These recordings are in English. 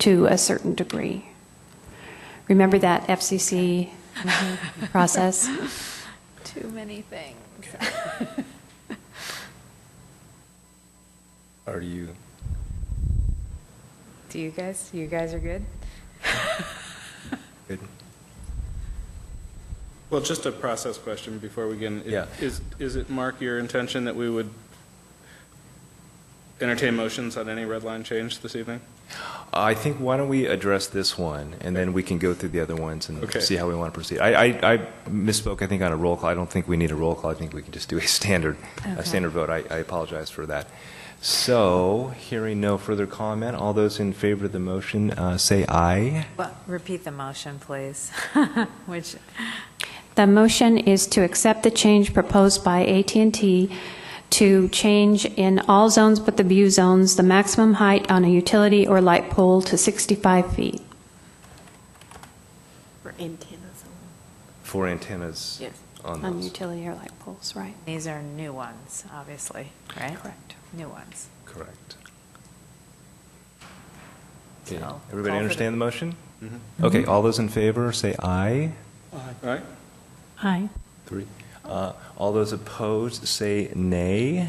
to a certain degree. Remember that FCC Mm-hmm. process? Too many things. Are you, Do you guys, you guys are good? good? Well, just a process question before we begin. Yeah. Is, is it, Mark, your intention that we would entertain motions on any red line change this evening? Uh, I think, why don't we address this one, and then we can go through the other ones and Okay. see how we want to proceed. I, I I misspoke, I think, on a roll call. I don't think we need a roll call. I think we can just do a standard, a Okay. standard vote. I I apologize for that. So, hearing no further comment, all those in favor of the motion, uh, say aye. Well, repeat the motion, please, which, The motion is to accept the change proposed by at and t to change in all zones but the view zones, the maximum height on a utility or light pole to 65 feet. Or antennas For antennas Yes. on On those. utility or light poles, right. these are new ones, obviously, right? Correct. New ones. Correct. So, Okay. call for Everybody the- Mm-hmm. understand the motion? Okay, all those in favor, say aye. All right? Aye. Three. Uh, All those opposed, say nay. Nay.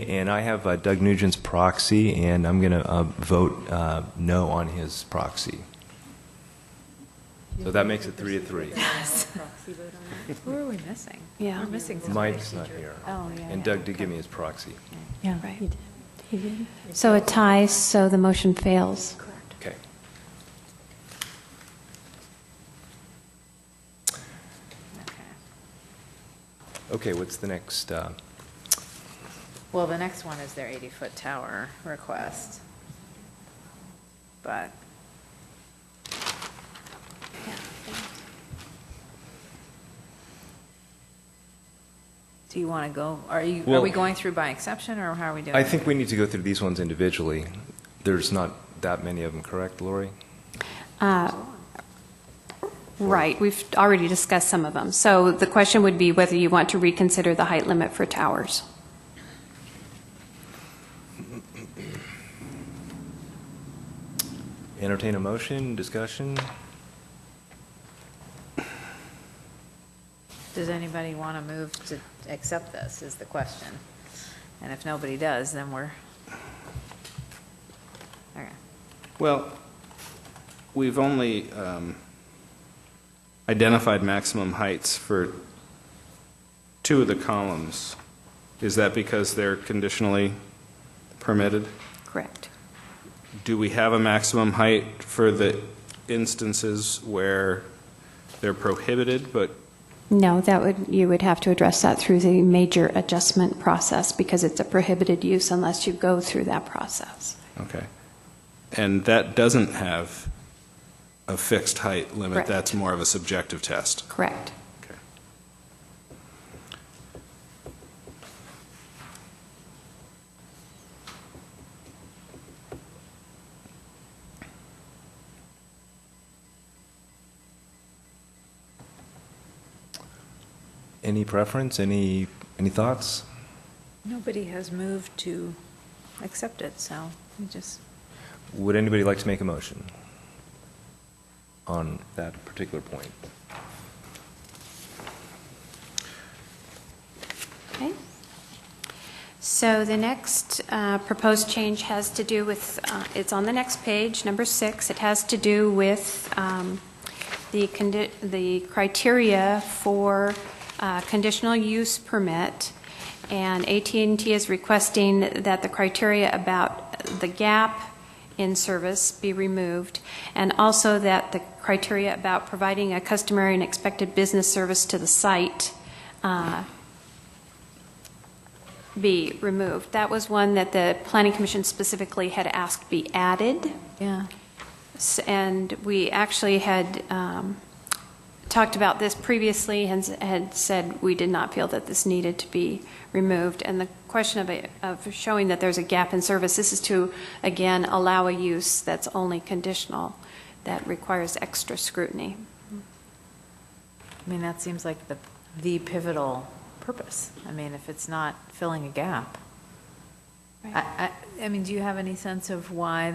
Nay, and I have uh, Doug Nugent's proxy, and I'm going to vote uh, no on his proxy. So that makes it three to three. Who are we missing? Yeah. We're missing somebody. Mike's not here. Oh, yeah, And yeah, Doug did okay. give me his proxy. Yeah. Right. So it ties, so the motion fails. Okay. Okay, what's the next? uh, Well, the next one is their 80-foot tower request. But do you want to go, are you, are Well- we going through by exception, or how are we doing? I think we need to go through these ones individually. There's not that many of them, correct, Lori? Uh, Right, we've already discussed some of them. So the question would be whether you want to reconsider the height limit for towers. Entertain a motion, discussion? Does anybody want to move to accept this, is the question? And if nobody does, then we're, okay. Well, we've only um, identified maximum heights for two of the columns. Is that because they're conditionally permitted? Correct. Do we have a maximum height for the instances where they're prohibited, but No, that would, you would have to address that through the major adjustment process because it's a prohibited use unless you go through that process. Okay. And that doesn't have a fixed height limit? Correct. That's more of a subjective test? Correct. Okay. Any preference, any, any thoughts? Nobody has moved to accept it, so we just, Would anybody like to make a motion on that particular point? Okay. So the next uh, proposed change has to do with, uh, it's on the next page, number six. It has to do with um, the, condi- the criteria for uh, conditional use permit. And at and t is requesting that the criteria about the gap in service be removed, and also that the criteria about providing a customary and expected business service to the site uh, be removed. That was one that the Planning Commission specifically had asked be added, yeah. S- and we actually had um, talked about this previously and s- had said we did not feel that this needed to be removed. And the question of, it- of showing that there's a gap in service, this is to, again, allow a use that's only conditional, that requires extra scrutiny. I mean, that seems like the, the pivotal purpose. I mean, if it's not filling a gap. I, I, I mean, do you have any sense of why